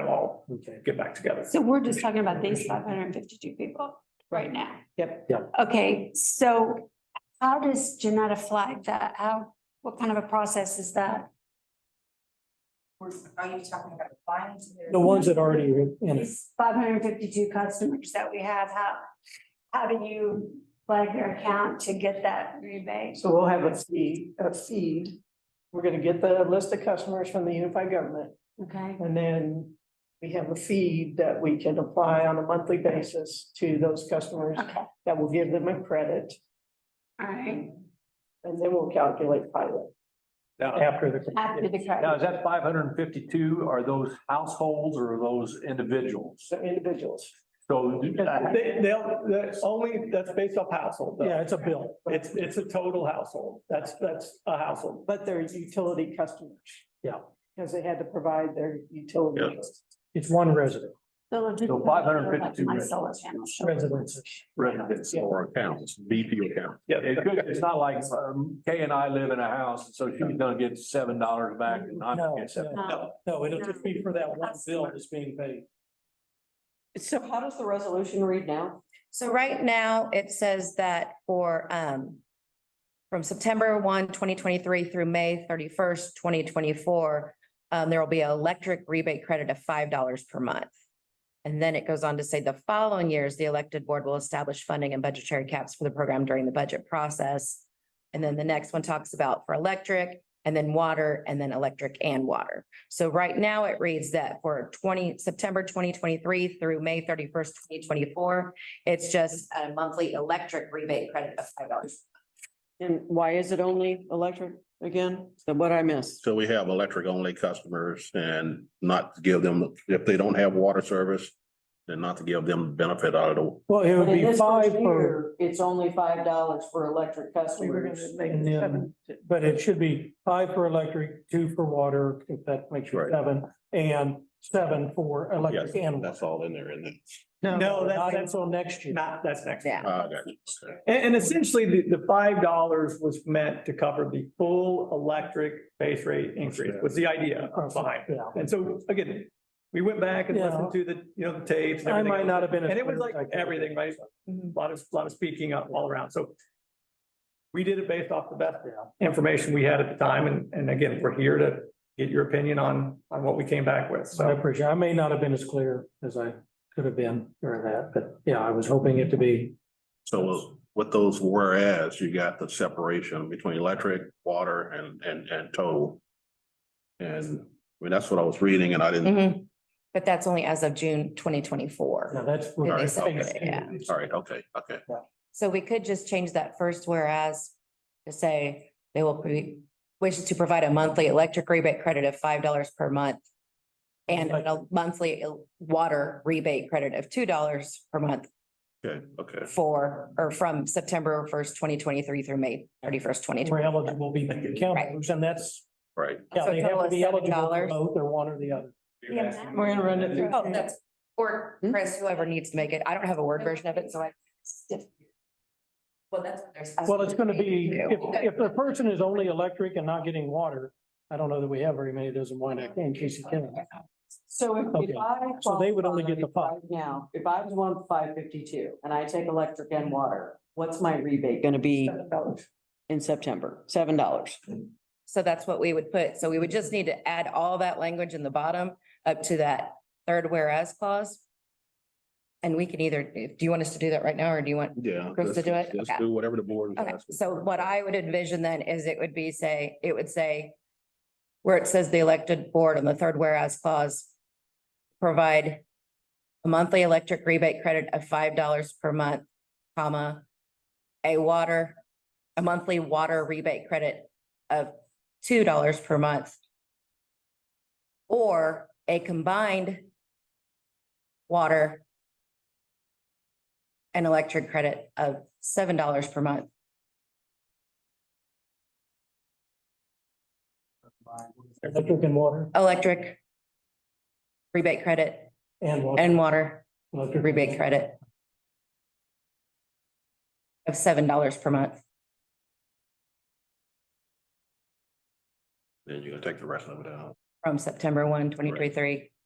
Okay. get back together. So we're just talking about these five hundred and fifty-two people right now. Yep, yep. Okay, so how does Janetta flag that? How, what kind of a process is that? Or Are you talking about applying to their? The ones that already are in it. These five hundred and fifty-two customers that we have, how, how do you flag their account to get that rebate? So we'll have a feed, a feed. We're gonna get the list of customers from the unified government, Okay, and then we have a feed that we can apply on a monthly basis to those customers okay, all that will give them a credit, right, and then we'll calculate pilot. Now, after the. after the now credit. is that five hundred and fifty-two, are those households or are those individuals? So individuals, So uh, They, they'll, that's only, that's based off household. though. Yeah, it's a bill. It's, it's a total household. That's, that's a household. but they're utility customers. Yeah. Because they had to provide their utility. It's one resident, So 552 My solar channel. shows. residents. residents or accounts, BP accounts. Yeah. it could, it's not like um, Kay and I live in a house, and so she's gonna get seven dollars back and I'm No, gonna get seven. Um, no, no, it'll just be for that one bill that's being paid. So how does the resolution read now? So right now, it says that for, um, from September 1, 2023 through May thirty-first, twenty twenty-four, um, there will be an electric rebate credit of five dollars per month. And then it goes on to say the following years, the elected board will establish funding and budgetary caps for the program during the budget process. And then the next one talks about for electric and then water and then electric and water. So right now it reads that for twenty, September twenty twenty-three through May thirty-first, twenty twenty-four, it's just a monthly electric rebate credit of five dollars. And why is it only electric again? So what I missed? So we have electric only customers and not give them, if they don't have water service, then not to give them benefit out of the Well, it would In be this five first per, year, It's only five dollars for electric We were customers. gonna make And it then- seven. but it should be five for electric, two for water, if that makes you Right. seven, and seven for electric Yes, and. That's all in there, isn't it? No, that- Not that's until next year. not, that's next. Yeah. Ah, gotcha. Okay. And, and essentially, the, the five dollars was meant to cover the full electric base rate increase was the idea behind. it. Oh, Yeah. And so again, we went back and listened to the, you know, the tapes. and I everything. might not have been. as And it was clear like as I could. everything, right? A Lot of, lot of speaking up all around. So we did it based off the best Yeah. information we had at the time. And, and again, we're here to get your opinion on, on what we came back with. So I So appreciate, I may not have been as clear as I could have been during that, but yeah, I was hoping it to be. So with those whereas, you got the separation between electric, water and, and, and total. And, I mean, that's what I was reading and I didn't, Mhm. But that's only as of June twenty twenty-four. Now, that's. what- All right, okay, all right, okay, okay. So we could just change that first whereas to say they will be wishes to provide a monthly electric rebate credit of five dollars per month. And a monthly el- water rebate credit of two dollars per month Okay, okay. for, or from September first, twenty twenty-three through May thirty-first, twenty We're twenty. eligible to be counselors and that's, Right. yeah, So they have total to is be eligible for $7. both or one or the other. Yeah. We're gonna run it through. Oh, that's, or Chris, whoever needs to make it. I don't have a word version of it, so I. Well, that's. what they're- Well, it's gonna be, if, Okay. if the person is only electric and not getting water, I don't know that we have very many doesn't want that in Casey County. So if- Okay, if I. so they would only get the qualify five. right Now, if I was one five fifty-two and I take electric and water, what's my rebate gonna be dollars. in September? Seven dollars. So that's what we would put. So we would just need to add all that language in the bottom up to that third whereas clause. And we can either, do you want us to do that right now or do you want? Yeah. Chris to do it? Let's Okay. do whatever the board. is Okay, asking so for. what I would envision then is it would be say, it would say where it says the elected board on the third whereas clause provide a monthly electric rebate credit of five dollars per month, comma, a water, a monthly water rebate credit of two dollars per month. Or a combined water and electric credit of seven dollars per month. Electric and water electric rebate credit and water. and water Electric. rebate credit of seven dollars per month. Then you're gonna take the rest of it out. from September 1, 2023